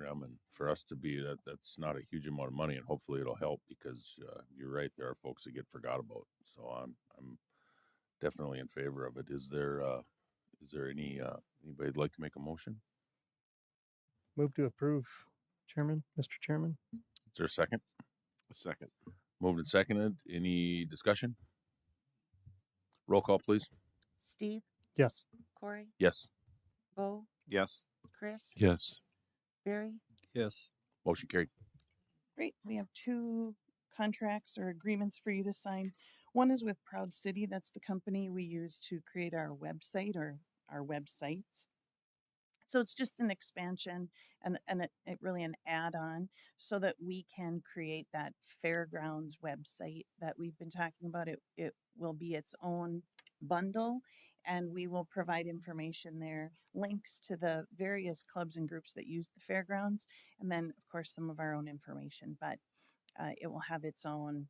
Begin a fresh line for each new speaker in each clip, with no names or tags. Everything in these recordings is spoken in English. program, and for us to be that, that's not a huge amount of money, and hopefully it'll help because uh, you're right, there are folks that get forgot about. So I'm I'm definitely in favor of it. Is there uh, is there any uh, anybody'd like to make a motion?
Move to approve, Chairman, Mr. Chairman.
Is there a second?
A second.
Moved and seconded. Any discussion? Roll call, please.
Steve,
Yes.
Corey,
Yes.
Bo,
Yes.
Chris,
Yes.
Barry.
Yes.
Motion carried.
Great. We have two contracts or agreements for you to sign. One is with Proud City. That's the company we use to create our website or our websites. So it's just an expansion and, and it, it really an add on so that we can create that fairgrounds website that we've been talking about. It, it will be its own bundle and we will provide information there, links to the various clubs and groups that use the fairgrounds and then of course some of our own information but uh, it will have its own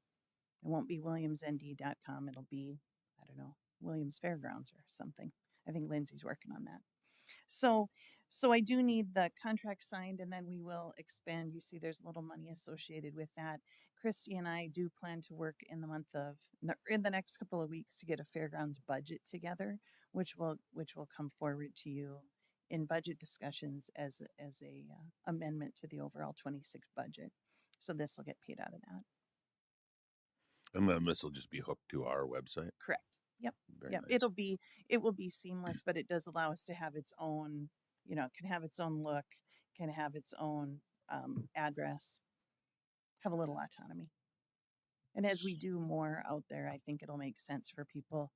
it won't be williamsnd.com it'll be i don't know williams fairgrounds or something i think lindsay's working on that so so i do need the contract signed and then we will expand you see there's a little money associated with that christy and i do plan to work in the month of in the- in the next couple of weeks to get a fairgrounds budget together which will which will come forward to you in budget discussions as a- as a uh, amendment to the overall 26 budget. So this will get paid out of that.
And then this will just be hooked to our website.
Correct. Yep.
Very
yep.
nice.
It'll be it will be seamless, but it does allow us to have its own, you know, it can have its own look, can have its own um, address, have a little autonomy. And as we do more out there, I think it'll make sense for people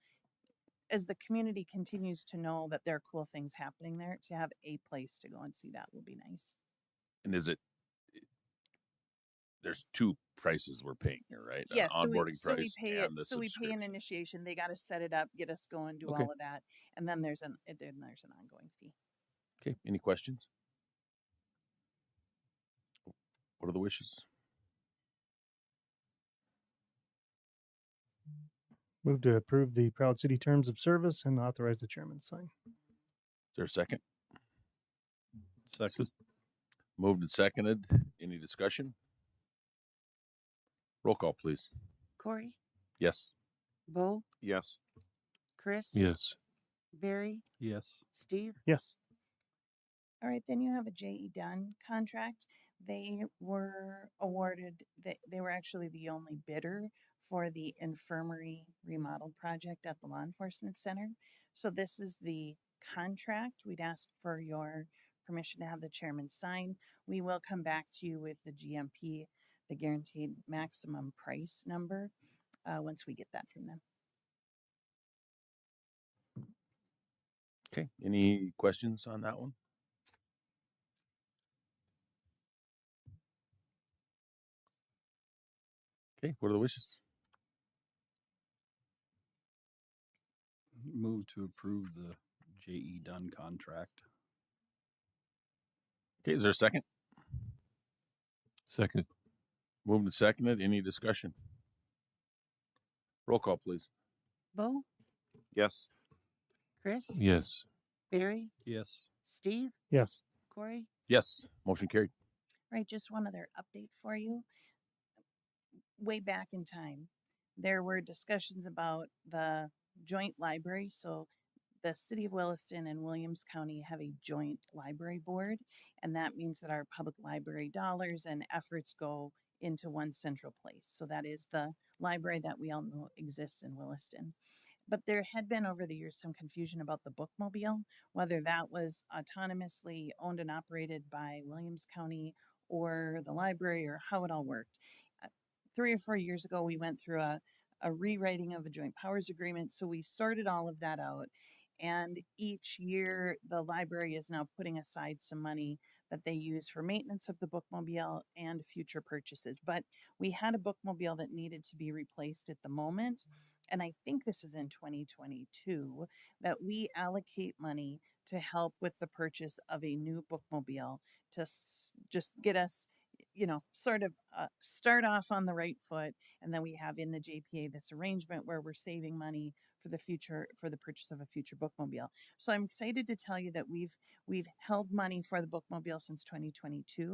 as the community continues to know that there are cool things happening there to have a place to go and see that will be nice.
And is it? eh, There's two prices we're paying here, right?
Yes,
An onboarding
so we,
price
so we pay
and
it.
the
So we pay an
subscription.
initiation. They got to set it up, get us going, do
Okay.
all of that, and then there's an eh, then there's an ongoing fee.
Okay. Any questions? What are the wishes?
Move to approve the Proud City Terms of Service and authorize the chairman to sign.
Is there a second?
Second.
Moved and seconded. Any discussion? Roll call, please.
Corey,
Yes.
Bo,
Yes.
Chris,
Yes.
Barry,
Yes.
Steve.
Yes.
All right, then you have a J.E. Dunn contract. They were awarded, they, they were actually the only bidder for the infirmary remodel project at the law enforcement center. So this is the contract. We'd ask for your permission to have the chairman sign. We will come back to you with the GMP, the guaranteed maximum price number, uh, once we get that from them.
Okay. Any questions on that one? Okay. What are the wishes?
Move to approve the J.E. Dunn contract.
Okay. Is there a second?
Second.
Moved and seconded. Any discussion? Roll call, please.
Bo,
Yes.
Chris,
Yes.
Barry,
Yes.
Steve,
Yes.
Corey,
Yes. Motion carried.
Right, just one other update for you. Way back in time, there were discussions about the joint library. So the city of Williston and Williams County have a joint library board, and that means that our public library dollars and efforts go into one central place. So that is the library that we all know exists in Williston. But there had been over the years some confusion about the bookmobile, whether that was autonomously owned and operated by Williams County or the library or how it all worked. Uh, Three or four years ago, we went through a, a rewriting of a joint powers agreement. So we sorted all of that out. And each year, the library is now putting aside some money that they use for maintenance of the bookmobile and future purchases. But we had a bookmobile that needed to be replaced at the moment. And I think this is in 2022 that we allocate money to help with the purchase of a new bookmobile to s- just get us, you know, sort of uh, start off on the right foot. And then we have in the JPA this arrangement where we're saving money for the future for the purchase of a future bookmobile. So I'm excited to tell you that we've we've held money for the bookmobile since 2022.